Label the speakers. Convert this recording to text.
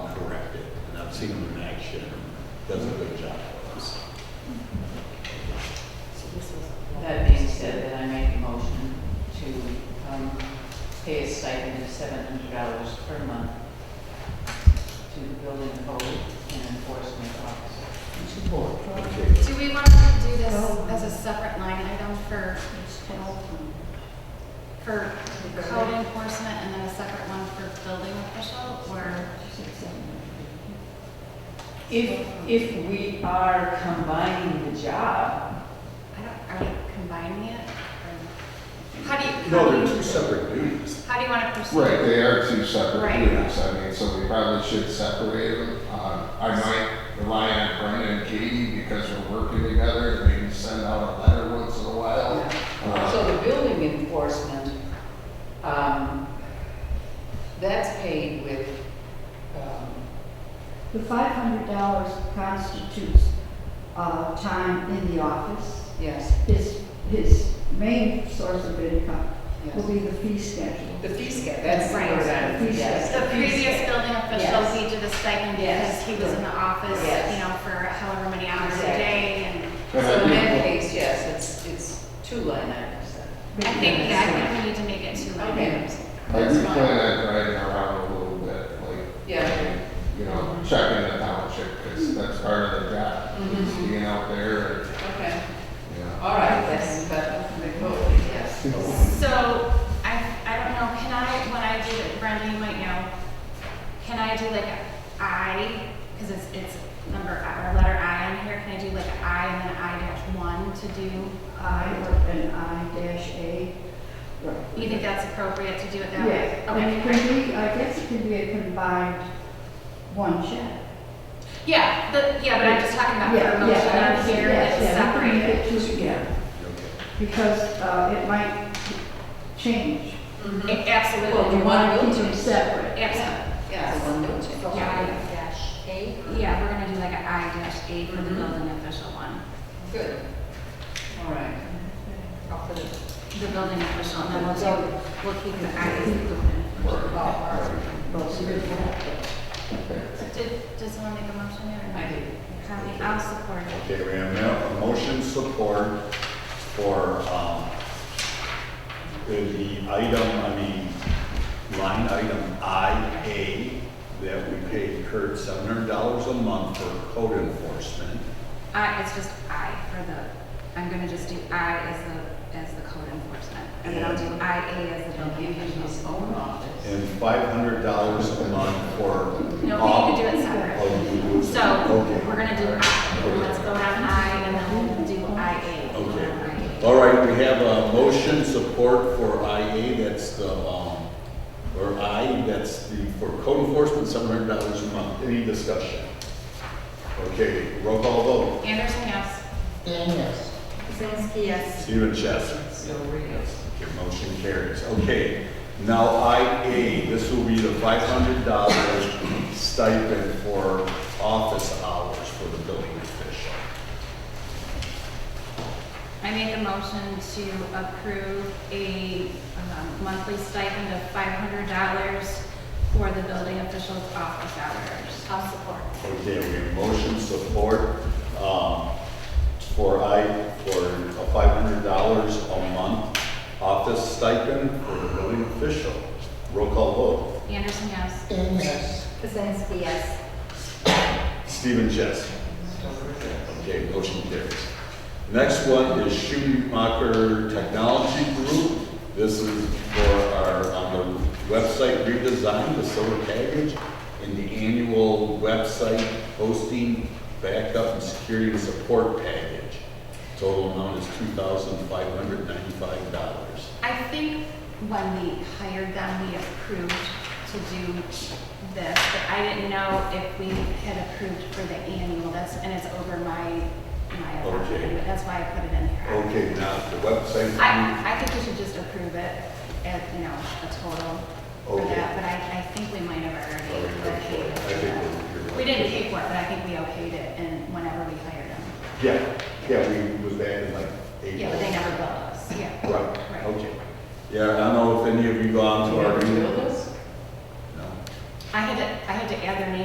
Speaker 1: seen them in action, does a good job for us.
Speaker 2: That being said, then I make a motion to um, pay a stipend of seven hundred dollars per month to the building code and enforcement officer.
Speaker 3: Support.
Speaker 1: Okay,
Speaker 4: Do we want to do this
Speaker 2: Oh.
Speaker 4: as a separate line item for, for code enforcement and then a separate one for building official, or?
Speaker 2: If, if we are combining the job,
Speaker 4: I don't, are we combining it? or- How do you, how
Speaker 1: no,
Speaker 4: do
Speaker 1: they're two
Speaker 4: you,
Speaker 1: separate duties.
Speaker 4: how do you want to proceed?
Speaker 3: Right, they are two separate
Speaker 4: Right.
Speaker 3: units, I mean, so we probably should separate them. Um, I might rely on Brenda and Katie because we're working together, and maybe send out a letter once in a while. Uh,
Speaker 2: so the building enforcement, um, that's paid with, um,
Speaker 5: The five hundred dollars constitutes, uh, time in the office.
Speaker 2: yes,
Speaker 5: His, his main source of income will
Speaker 2: yes.
Speaker 5: be the fee schedule.
Speaker 2: The fee schedule, that's the
Speaker 4: Right.
Speaker 2: word I'm-
Speaker 5: The fee
Speaker 2: yes,
Speaker 4: The previous building official,
Speaker 2: Yes.
Speaker 4: he did a stipend
Speaker 2: Yes.
Speaker 4: because he was in the office,
Speaker 2: Yes.
Speaker 4: you know, for however many hours a
Speaker 2: Exactly.
Speaker 4: day, and
Speaker 2: So
Speaker 3: and I
Speaker 2: in that
Speaker 3: think-
Speaker 2: case, yes, it's, it's two line items then.
Speaker 4: I think, yeah, I think we need to make it two line
Speaker 2: Okay.
Speaker 4: items.
Speaker 3: I
Speaker 2: That's
Speaker 3: do
Speaker 2: fine.
Speaker 3: plan on driving around a little bit, like,
Speaker 2: Yeah.
Speaker 3: you know, checking the township, because that's part of the job, is
Speaker 2: Mhm.
Speaker 3: being out there and,
Speaker 2: Okay,
Speaker 3: you know.
Speaker 2: all right, that's, but the vote, yes.
Speaker 4: So, I, I don't know, can I, when I do it, Brenda, you might know, can I do like a I, because it's, it's number, I- or letter I on here, can I do like a I and then I dash one to do
Speaker 5: I
Speaker 4: I?
Speaker 5: or an I dash A. Right.
Speaker 4: You think that's appropriate to do it that way?
Speaker 5: Yes, and it
Speaker 4: Okay.
Speaker 5: can be, I guess it can be a combined one check.
Speaker 4: Yeah, the, yeah, but I'm just talking about
Speaker 5: Yeah,
Speaker 4: the motion
Speaker 5: yeah, I
Speaker 4: on
Speaker 5: understand.
Speaker 4: here,
Speaker 5: Yes,
Speaker 4: it's
Speaker 5: yeah, we can
Speaker 4: separated.
Speaker 5: make it two together, Because, uh, it might change.
Speaker 4: A- Absolutely.
Speaker 2: Well, the one will
Speaker 5: Keep them separate.
Speaker 4: Absolutely.
Speaker 2: Mm-hmm. Yeah, the one vote change.
Speaker 4: I
Speaker 2: Yeah,
Speaker 4: dash A? Mm-hmm. Yeah, we're gonna do like a I dash A for the
Speaker 2: Mhm.
Speaker 4: building official one,
Speaker 2: good. All right.
Speaker 4: the building official, and then we'll do, we'll keep the I as the building. Did, does someone make a motion there? or not?
Speaker 2: I do.
Speaker 4: Connie, I'll support it.
Speaker 1: Okay, we have now a motion support for, um, the item, I mean, line item I A, that we pay Kurt seven hundred dollars a month for code enforcement.
Speaker 4: I, it's just I for the, I'm gonna just do I as the, as the code enforcement. And then I'll do I A as the
Speaker 2: He'll
Speaker 4: building
Speaker 2: give you his
Speaker 4: official.
Speaker 2: own office.
Speaker 1: and five hundred dollars a month for.
Speaker 4: No, we need to do it separate.
Speaker 1: it.
Speaker 4: So we're gonna do I, let's go down I and then we'll do I A.
Speaker 1: Okay, all right, we have a motion support for IA, that's the, um, or I, that's the, for code enforcement, seven hundred dollars a month, any discussion? Okay, roll call vote,
Speaker 4: Anderson, yes.
Speaker 6: Kuzinski, yes.
Speaker 1: Stephen Chess.
Speaker 2: So read it.
Speaker 1: Your motion carries, okay, now IA, this will be the five hundred dollars stipend for office hours for the building official.
Speaker 4: I make a motion to approve a um, monthly stipend of five hundred dollars for the building official's office hours. I'll support.
Speaker 1: Okay, we have motion support, um, for I, for a five hundred dollars a month office stipend for the building official. Roll call vote.
Speaker 4: Anderson, yes.
Speaker 6: Kuzinski, yes.
Speaker 1: Stephen Chess. Okay, motion carries. Next one is Schumacher Technology Group. This is for our, on the website redesign, the silver package, and the annual website hosting, backup, and security and support package. Total amount is two thousand five hundred ninety-five dollars.
Speaker 4: I think when we hired them, we approved to do this, but I didn't know if we had approved for the annual, that's, and it's over my, my,
Speaker 1: Okay.
Speaker 4: allotment, that's why I put it in there.
Speaker 1: Okay, now the website.
Speaker 4: I, I think we should just approve it at, you know, a total for
Speaker 1: Okay.
Speaker 4: that, but I, I think we might have
Speaker 1: Sorry,
Speaker 4: already
Speaker 1: I'm sorry. I
Speaker 4: okayed
Speaker 1: think
Speaker 4: it.
Speaker 1: we're- you're right.
Speaker 4: We didn't pay for it, but I think we okayed it and whenever we hired them.
Speaker 1: Yeah, yeah, we was back in like April.
Speaker 4: Yeah, but they never billed us, yeah.
Speaker 1: Right,
Speaker 4: Right.
Speaker 1: okay. Yeah, I don't know if any of you gone to our new